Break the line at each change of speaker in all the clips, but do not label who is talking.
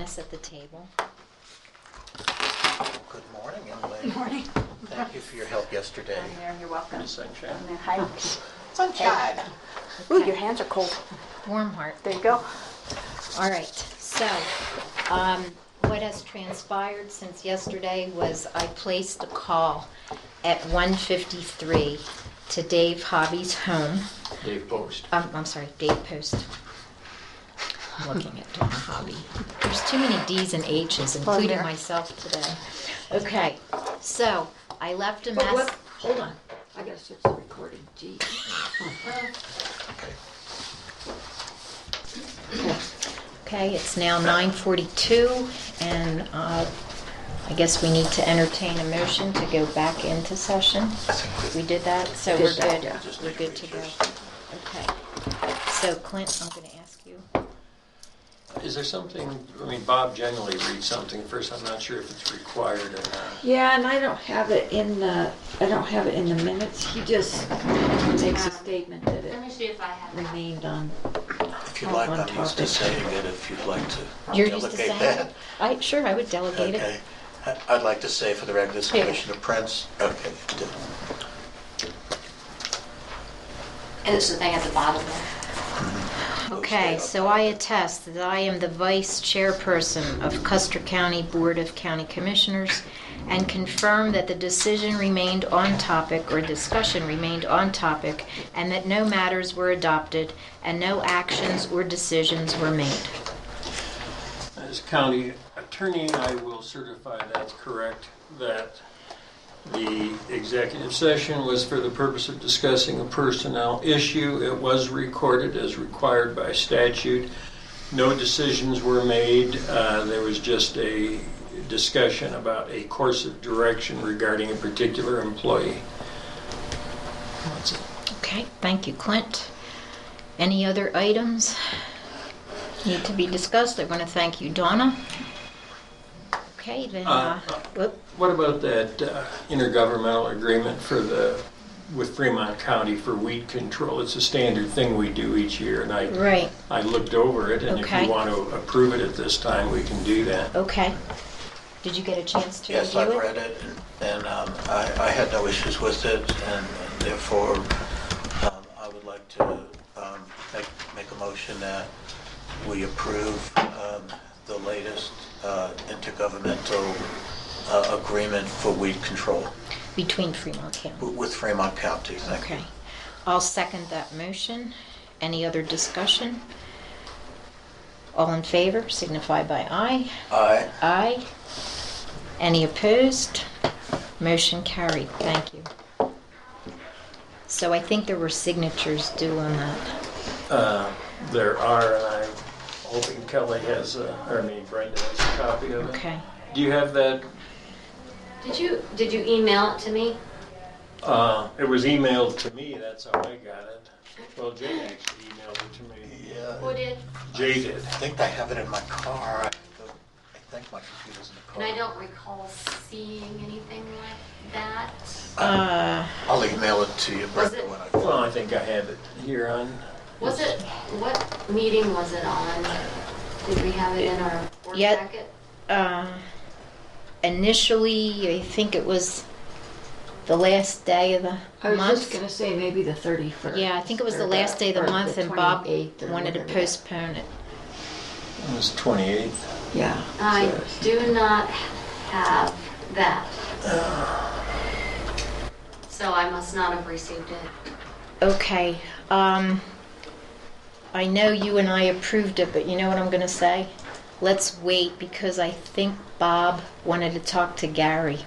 us at the table.
Good morning, young lady.
Morning.
Thank you for your help yesterday.
Down there, you're welcome.
Sunshine.
Down there, Hi.
Sunshine.
Ooh, your hands are cold.
Warm heart.
There you go.
All right, so um, what has transpired since yesterday was I placed a call at 1:53 to Dave Hobby's home.
Dave Post.
Um, I'm sorry, Dave Post. I'm looking at Dawn Hobby. There's too many D's and H's, including
there.
myself today. Okay, so I left a
But
mess.
what, hold on, I gotta switch the recording, gee.
Okay.
Okay, it's now 9:42, and uh, I guess we need to entertain a motion to go back into session.
I think
We
we-
did that, so we're
Did that,
good.
yeah.
Just
We're
need to
good to
make
go.
sure.
Okay. So Clint, I'm going to ask you.
Is there something, I mean, Bob generally reads something first, I'm not sure if it's required or not.
Yeah, and I don't have it in the, I don't have it in the minutes, he just makes a statement that
Let me
it
see if I have that.
remained on.
If you'd like, I'm used to
Topic.
saying it, if you'd like to
You're used to saying
delegate that.
it? I, sure, I would delegate
Okay.
it.
I- I'd like to say for the record, this is
Here.
Commissioner Prince. Okay. you did.
It's the thing at the bottom there.
Mm-hmm.
Okay, so I attest that I am the vice chairperson of Custer County Board of County Commissioners and confirm that the decision remained on topic or discussion remained on topic and that no matters were adopted and no actions or decisions were made.
As county attorney, I will certify that's correct, that the executive session was for the purpose of discussing a personnel issue. It was recorded as required by statute. No decisions were made. Uh, There was just a discussion about a course of direction regarding a particular employee. That's it.
Okay, thank you, Clint. Any other items need to be discussed? I want to thank you, Donna. Okay, then, uh,
Uh, uh,
whoop,
What about that uh, intergovernmental agreement for the, with Fremont County for weed control? It's a standard thing we do each year, and I,
right,
I looked over it, and if
Okay. Oh.
you want to approve it at this time, we can do that.
okay. Did you get a chance to
Yes,
review it?
I've read it, and um, I I had no issues with it, and therefore, um, I would like to um, make make a motion that we approve um, the latest uh, intergovernmental uh, agreement for weed control
Between Fremont County.
with Fremont County. Thank you.
Okay. I'll second that motion. Any other discussion? All in favor signify by aye.
Aye.
Aye. Any opposed? Motion carried. Thank you. So I think there were signatures due on that.
Uh, There are, and I'm hoping Kelly has, a- or I mean Brenda has a copy of it.
Okay.
Do you have that?
Did you, did you email it to me?
Uh, It was emailed to me, that's how I got it. Well, Jay actually emailed it to me.
Who
Yeah,
did?
Jay did.
I think I have it in my car. I don't- I think my computer's in the car.
And I don't recall seeing anything like that.
Uh,
I'll email it to you,
Was
Brenda,
it-
when I...
Well, I think I have it here on.
Was it, what meeting was it on? Did we have it in our board
Yeah.
packet?
uh, initially, I think it was the last day of
I
the
was just
month.
gonna say maybe the thirty-first.
Yeah, I think it was the last day of the month and Bob wanted to postpone it.
It was 28th.
Yeah.
I
so-
do not have that. So I must not have received it.
Okay, um, I know you and I approved it, but you know what I'm gonna say? Let's wait because I think Bob wanted to talk to Gary.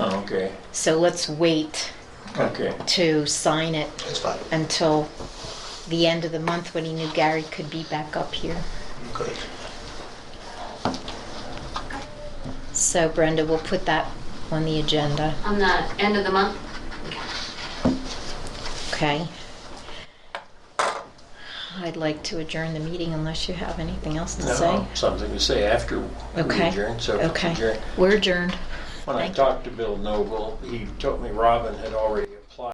Oh, okay,
So let's wait
okay.
to sign it
It's fine.
until the end of the month when he knew Gary could be back up here.
Good.
So Brenda, we'll put that on the agenda,
On the end of the month?
okay? I'd like to adjourn the meeting unless you have anything else to say.
No, something to say after we
Okay.
adjourn, so if we
Okay,
adjourn.
we're adjourned.
When I
Thank you.
talked to Bill Noble, he told me Robin had already applied